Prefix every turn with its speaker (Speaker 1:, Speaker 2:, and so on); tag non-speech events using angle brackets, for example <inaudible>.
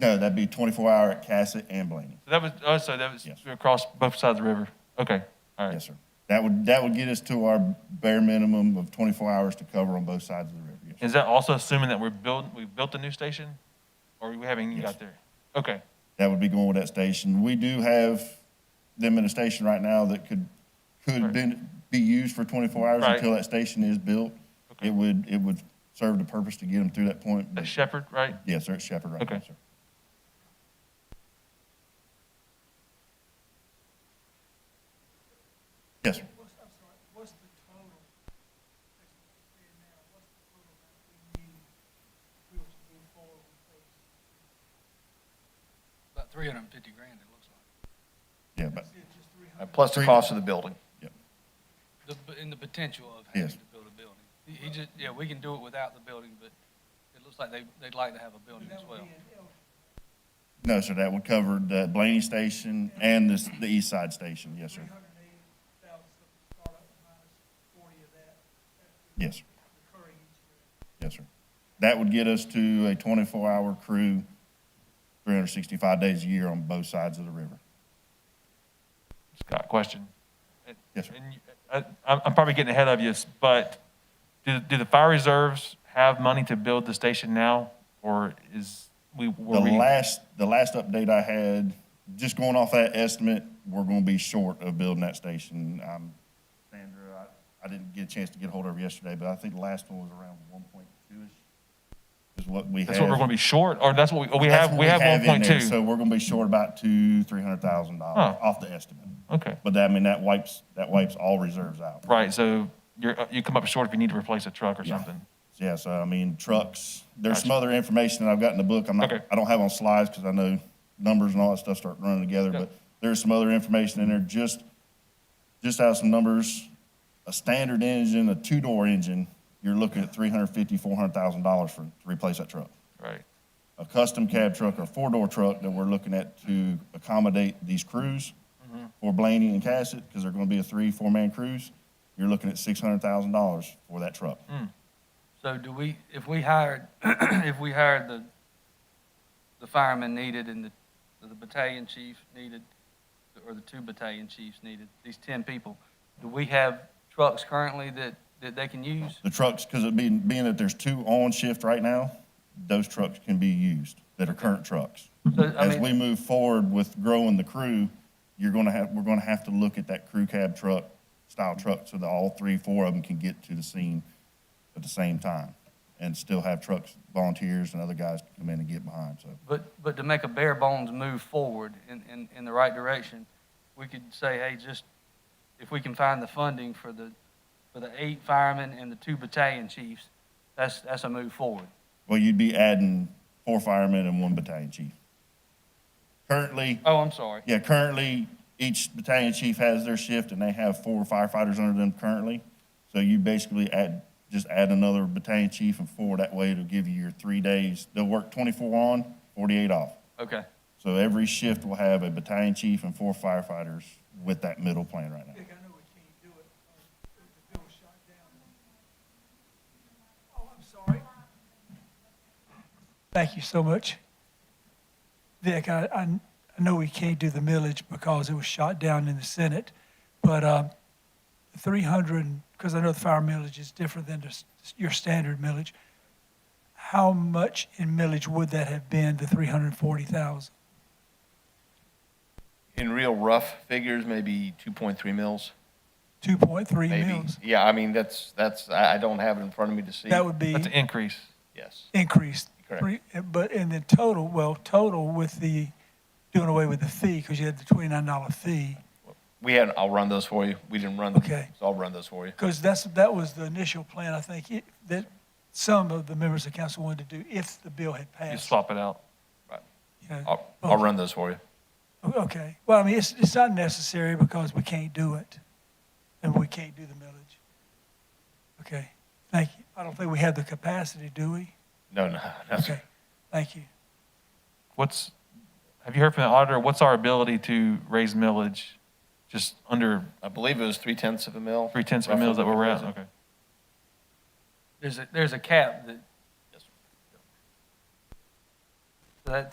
Speaker 1: No, that'd be 24 hour at Cassett and Blaney.
Speaker 2: That was, oh, so that was
Speaker 1: Yes.
Speaker 2: across both sides of the river? Okay, all right.
Speaker 1: Yes, sir. That would, that would get us to our bare minimum of 24 hours to cover on both sides of the river. Yes, sir.
Speaker 2: Is that also assuming that we're building, we've built a new station? Or we haven't even
Speaker 1: Yes.
Speaker 2: got there? Okay,
Speaker 1: That would be going with that station. We do have them in a station right now that could, could
Speaker 2: Right.
Speaker 1: been- be used for 24 hours
Speaker 2: Right.
Speaker 1: until that station is built.
Speaker 2: Okay.
Speaker 1: It would, it would serve the purpose to get them through that point. but-
Speaker 2: that's Shepherd, right?
Speaker 1: Yes, sir, it's Shepherd right now,
Speaker 2: Okay.
Speaker 1: sir. Yes, sir.
Speaker 3: What's, I'm sorry, what's the total? that's being now? What's the total that we need to be able to move forward with phase
Speaker 4: About three hundred and fifty grand, it looks like.
Speaker 1: yeah, but,
Speaker 3: two? Just three
Speaker 5: Uh,
Speaker 3: hundred?
Speaker 5: Plus the
Speaker 1: Three-
Speaker 5: cost of the building.
Speaker 1: yeah.
Speaker 4: The, in the potential of
Speaker 1: Yes.
Speaker 4: having to build a building. He, he just, yeah, we can do it without the building, but it looks like they, they'd like to have a building as well.
Speaker 1: No, sir, that would cover the Blaney Station and this, the East Side Station, yes, sir.
Speaker 3: Three hundred and eighty thousand of the startup minus forty of that.
Speaker 1: Yes,
Speaker 3: that's
Speaker 1: sir.
Speaker 3: Recurring each year.
Speaker 1: yes, sir. That would get us to a twenty-four hour crew, three hundred sixty-five days a year on both sides of the river.
Speaker 2: Scott, question.
Speaker 1: Yes, sir.
Speaker 2: And you- I, I'm I'm probably getting ahead of you, but do, do the fire reserves have money to build the station now? Or is, we,
Speaker 1: The
Speaker 2: were we?
Speaker 1: last, the last update I had, just going off that estimate, we're gonna be short of building that station. Um, Sandra, I, I didn't get a chance to get hold of her yesterday, but I think the last one was around one point two-ish is what we have.
Speaker 2: That's what we're gonna be short, or that's what we, we
Speaker 1: That's
Speaker 2: have,
Speaker 1: what
Speaker 2: we have one
Speaker 1: in
Speaker 2: point
Speaker 1: there.
Speaker 2: two?
Speaker 1: So we're gonna be short about two, three hundred thousand dollars
Speaker 2: Huh.
Speaker 1: off the estimate.
Speaker 2: Okay,
Speaker 1: But that, I mean, that wipes, that wipes all reserves out.
Speaker 2: right, so you're, you come up short if you need to replace a truck or
Speaker 1: Yeah.
Speaker 2: something.
Speaker 1: Yeah, so I mean, trucks, there's some
Speaker 2: Gotcha.
Speaker 1: other information that I've got in the book. I'm not,
Speaker 2: Okay.
Speaker 1: I don't have on slides because I know numbers and all that stuff start running together,
Speaker 2: Yeah.
Speaker 1: but there's some other information in there, just, just out of some numbers. A standard engine, a two-door engine, you're looking at three hundred fifty, four hundred thousand dollars for, to replace that truck.
Speaker 2: Right,
Speaker 1: a custom cab truck or a four-door truck that we're looking at to accommodate these crews for Blaney and Cassett, because they're gonna be a three, four-man crews, you're looking at six hundred thousand dollars for that truck.
Speaker 4: So do we, if we hired, <clears throat> if we hired the, the firemen needed and the, the battalion chief needed, or the two battalion chiefs needed, these ten people, do we have trucks currently that, that they can use?
Speaker 1: The trucks, because it being, being that there's two on shift right now, those trucks can be used, that are current trucks.
Speaker 4: So, I
Speaker 1: As
Speaker 4: mean-
Speaker 1: we move forward with growing the crew, you're gonna have, we're gonna have to look at that crew cab truck, style truck, so that all three, four of them can get to the scene at the same time, and still have trucks, volunteers and other guys to come in and get behind, so.
Speaker 4: But, but to make a bare bones move forward in, in, in the right direction, we could say, hey, just, if we can find the funding for the, for the eight firemen and the two battalion chiefs, that's, that's a move forward.
Speaker 1: Well, you'd be adding four firemen and one battalion chief. Currently,
Speaker 4: Oh, I'm sorry.
Speaker 1: yeah, currently, each battalion chief has their shift and they have four firefighters under them currently. So you basically add, just add another battalion chief and four, that way it'll give you your three days. They'll work twenty-four on, forty-eight off.
Speaker 4: Okay.
Speaker 1: So every shift will have a battalion chief and four firefighters with that middle plan right now.
Speaker 3: Dick, I know we can't do it, uh, the the bill was shot down. Oh, I'm sorry. Thank you so much. Vic, I, I, I know we can't do the millage because it was shot down in the Senate, but, um, three hundred, because I know the fire millage is different than just your standard millage. How much in millage would that have been, the three hundred and forty thousand?
Speaker 5: In real rough figures, maybe 2.3 mils,
Speaker 3: Two point three
Speaker 5: maybe.
Speaker 3: mils?
Speaker 5: Yeah, I mean, that's, that's, I I don't have it in front of me to see.
Speaker 3: That would be.
Speaker 2: that's an increase.
Speaker 5: Yes,
Speaker 3: increased.
Speaker 5: Correct.
Speaker 3: Three- eh, But in the total, well, total with the, doing away with the fee, because you had the twenty-nine dollar fee,
Speaker 5: we had, I'll run those for you. We didn't run them.
Speaker 3: Okay.
Speaker 5: So I'll run those for you.
Speaker 3: because that's, that was the initial plan, I think, it- that some of the members of council wanted to do if the bill had
Speaker 2: You
Speaker 3: passed.
Speaker 2: swap it out.
Speaker 3: you know.
Speaker 5: I'll, I'll run those for you.
Speaker 3: O- Oh, Okay, well, I mean, it's, it's not necessary because we can't do it, and we can't do the millage. Okay, thank you. I don't think we have the capacity, do we?
Speaker 5: No, no, no.
Speaker 3: Okay, thank you.
Speaker 2: What's, have you heard from the auditor, what's our ability to raise millage? Just under
Speaker 5: I believe it was three tenths of a mil.
Speaker 2: three tenths of a mil that we're at, okay.
Speaker 4: There's a, there's a cap that,
Speaker 5: Yes, sir.
Speaker 4: that